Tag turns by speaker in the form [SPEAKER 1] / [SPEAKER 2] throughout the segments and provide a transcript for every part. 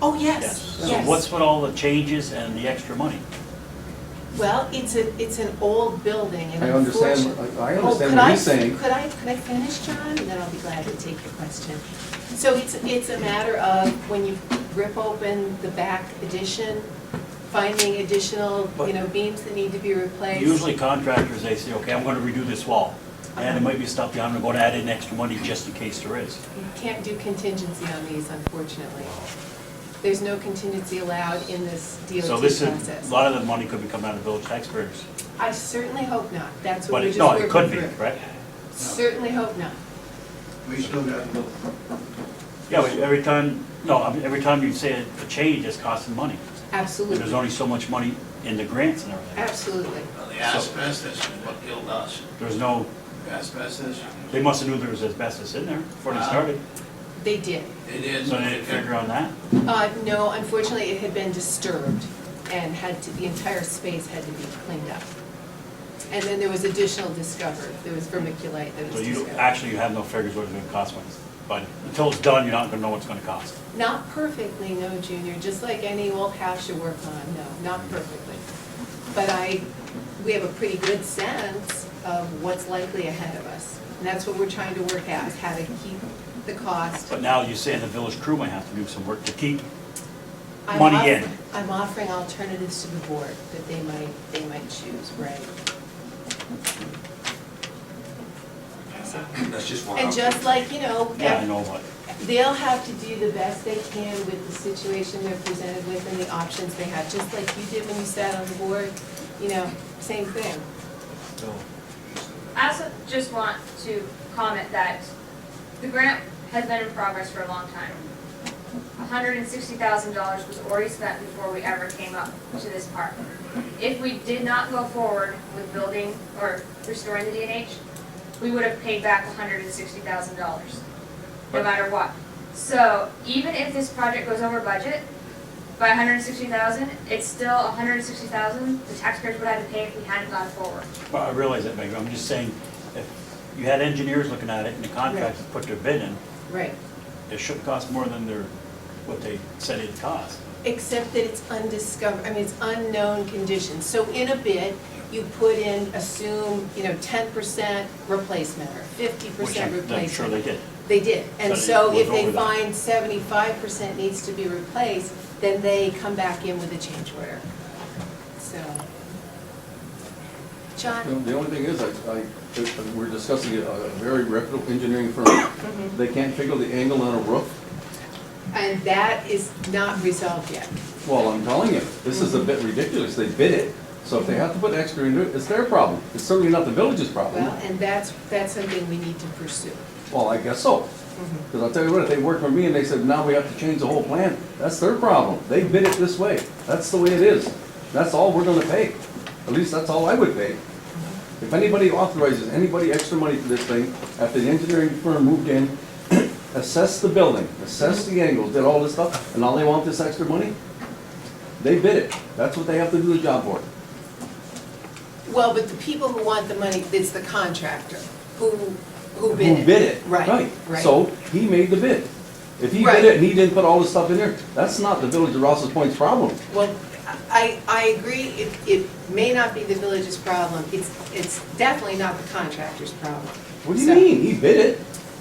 [SPEAKER 1] Oh, yes,
[SPEAKER 2] So
[SPEAKER 1] yes.
[SPEAKER 2] what's with all the changes and the extra money?
[SPEAKER 1] Well, it's a, it's an old building and
[SPEAKER 3] I understand-
[SPEAKER 1] unfortunate-
[SPEAKER 3] I- I
[SPEAKER 1] Oh,
[SPEAKER 3] understand
[SPEAKER 1] could
[SPEAKER 3] what
[SPEAKER 1] I-
[SPEAKER 3] he's saying.
[SPEAKER 1] Could I, could I finish, John, and then I'll be glad to take your question. So it's, it's a matter of when you rip open the back addition, finding additional, you
[SPEAKER 2] But-
[SPEAKER 1] know, beams that need to be replaced.
[SPEAKER 2] Usually contractors, they say, okay, I'm gonna redo this wall. And there might be stuff down, I'm gonna add in extra money just in case there is.
[SPEAKER 1] You can't do contingency on these, unfortunately. There's no contingency allowed in this DOT
[SPEAKER 2] So this is,
[SPEAKER 1] process.
[SPEAKER 2] a lot of the money could be coming out of village taxpayers.
[SPEAKER 1] I certainly hope not, that's what we're
[SPEAKER 2] But it,
[SPEAKER 1] just
[SPEAKER 2] no,
[SPEAKER 1] working
[SPEAKER 2] it
[SPEAKER 1] through.
[SPEAKER 2] could be, right?
[SPEAKER 1] Certainly hope not.
[SPEAKER 4] We still got a little.
[SPEAKER 2] Yeah, but every time, no, I mean, every time you say a change, it's costing money. And
[SPEAKER 1] Absolutely.
[SPEAKER 2] there's only so much money in the grants and everything.
[SPEAKER 1] Absolutely.
[SPEAKER 4] Well, The asbestos is what killed us.
[SPEAKER 2] There's no,
[SPEAKER 4] Asbestos,
[SPEAKER 2] they must have knew there was asbestos in there before they
[SPEAKER 4] Wow.
[SPEAKER 2] started.
[SPEAKER 1] They did.
[SPEAKER 4] it is.
[SPEAKER 2] So they didn't figure on that.
[SPEAKER 1] Uh, no, unfortunately, it had been disturbed and had to, the entire space had to be cleaned up. And then there was additional discovery. There was vermiculite that
[SPEAKER 2] So
[SPEAKER 1] was
[SPEAKER 2] you,
[SPEAKER 1] discovered.
[SPEAKER 2] actually, you have no figures what it's gonna cost, when it's- but until it's done, you're not gonna know what it's gonna cost.
[SPEAKER 1] Not perfectly, no, Junior, just like any old house you work on, no, not perfectly. But I, we have a pretty good sense of what's likely ahead of us. And that's what we're trying to work out, is how to keep the cost.
[SPEAKER 2] But now you're saying the village crew might have to do some work to keep,
[SPEAKER 1] I'm
[SPEAKER 2] Money
[SPEAKER 1] offer-
[SPEAKER 2] in.
[SPEAKER 1] I'm offering alternatives to the board that they might, they might choose, right? So-
[SPEAKER 5] That's just one.
[SPEAKER 1] And just like, you know,
[SPEAKER 2] yeah, I know, but
[SPEAKER 1] they'll have to do the best they can with the situation they're presented with and the options they have, just like you did when you sat on the board, you know, same thing.
[SPEAKER 2] so,
[SPEAKER 6] I also just want to comment that the grant has been in progress for a long time. hundred and sixty thousand dollars was already spent before we ever came up to this part. If we did not go forward with building or restoring the DNH, we would have paid back hundred and sixty thousand dollars, no
[SPEAKER 2] But-
[SPEAKER 6] matter what. So even if this project goes over budget by $160,000, it's still $160,000 the taxpayers would have to pay if we hadn't gone forward.
[SPEAKER 2] well, I realize that, Megan, I'm just saying, if you had engineers looking at it and the contractors put their bid in,
[SPEAKER 1] Right.
[SPEAKER 2] it shouldn't cost more than their, what they said it'd cost.
[SPEAKER 1] Except that it's undiscovered, I mean, it's unknown conditions. So in a bid, you put in, assume, you know, ten percent replacement or fifty
[SPEAKER 2] Which
[SPEAKER 1] percent
[SPEAKER 2] I'm-
[SPEAKER 1] replacement.
[SPEAKER 2] I'm sure they did.
[SPEAKER 1] They did, and
[SPEAKER 2] So it
[SPEAKER 1] so
[SPEAKER 2] was
[SPEAKER 1] if they
[SPEAKER 2] over that.
[SPEAKER 1] find seventy-five percent needs to be replaced, then they come back in with a change order, so.
[SPEAKER 3] The
[SPEAKER 1] John?
[SPEAKER 3] the only thing is, I, I, if we're discussing a a very reputable engineering firm. They can't figure the angle on a roof?
[SPEAKER 1] And that is not resolved yet.
[SPEAKER 3] Well, I'm telling you, this is a bit ridiculous. They bid it, so if they have to put extra into it, it's their problem. It's certainly not the village's problem.
[SPEAKER 1] Well, and that's, that's something we need to pursue.
[SPEAKER 3] Well, I guess so. Because I'll tell you what, if they worked for me and they said, now we have to change the whole plan, that's their problem. They bid it this way. That's the way it is. That's all we're gonna pay. At least that's all I would pay. If anybody authorizes anybody extra money for this thing, after the engineering firm moved in, assessed the building, assessed the angles, did all this stuff, and all they want this extra money? They bid it. That's what they have to do the job for.
[SPEAKER 1] Well, but the people who want the money, it's the contractor who, who
[SPEAKER 3] Who
[SPEAKER 1] bid it.
[SPEAKER 3] bid it?
[SPEAKER 1] Right, right.
[SPEAKER 3] So he made the bid. If he
[SPEAKER 1] Right.
[SPEAKER 3] bid it and he didn't put all this stuff in there, that's not the village of Rouse's Point's problem.
[SPEAKER 1] Well, I, I agree, it, it may not be the village's problem, it's, it's definitely not the contractor's problem.
[SPEAKER 3] What do you
[SPEAKER 1] So-
[SPEAKER 3] mean? He bid it.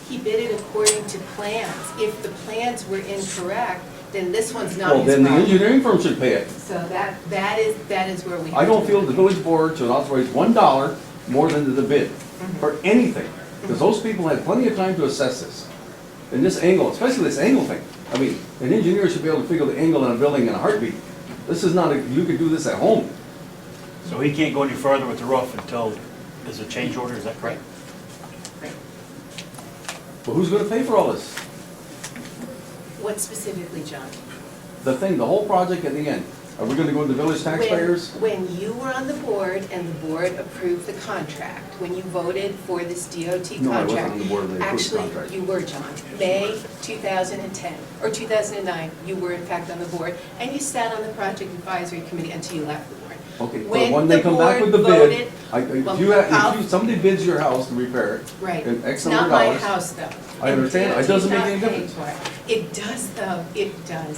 [SPEAKER 1] He bid it according to plans. If the plans were incorrect, then this one's not
[SPEAKER 3] Well,
[SPEAKER 1] his
[SPEAKER 3] then the
[SPEAKER 1] problem.
[SPEAKER 3] engineering firm should pay it.
[SPEAKER 1] So that, that is, that is where we.
[SPEAKER 3] I don't feel the village board should authorize one dollar more than the bid
[SPEAKER 1] Mm-hmm.
[SPEAKER 3] for anything. Because those people had plenty of time to assess this. And this angle, especially this angle thing. I mean, an engineer should be able to figure the angle on a building in a heartbeat. This is not, a you could do this at home.
[SPEAKER 2] So he can't go any further with the roof until there's a change order, is that correct?
[SPEAKER 3] But who's gonna pay for all this?
[SPEAKER 1] What specifically, John?
[SPEAKER 3] The thing, the whole project at the end. Are we gonna go to the village
[SPEAKER 1] When-
[SPEAKER 3] taxpayers?
[SPEAKER 1] When you were on the board and the board approved the contract, when you voted for this DOT contract.
[SPEAKER 3] No, I wasn't on the board when they approved the contract.
[SPEAKER 1] Actually, you were, John. May 2010, or 2009, you were in fact on the board, and you sat on the project advisory committee until you left the board.
[SPEAKER 3] Okay, but
[SPEAKER 1] When
[SPEAKER 3] when they
[SPEAKER 1] the
[SPEAKER 3] come back
[SPEAKER 1] board
[SPEAKER 3] with the bid,
[SPEAKER 1] voted-
[SPEAKER 3] I- if
[SPEAKER 1] Well,
[SPEAKER 3] you, ha- if
[SPEAKER 1] I'll-
[SPEAKER 3] you, somebody bids your house to repair it.
[SPEAKER 1] Right.
[SPEAKER 3] And X
[SPEAKER 1] Not
[SPEAKER 3] number
[SPEAKER 1] my
[SPEAKER 3] of dollars.
[SPEAKER 1] house, though.
[SPEAKER 3] I understand. It doesn't make any difference.
[SPEAKER 1] It does, though, it does.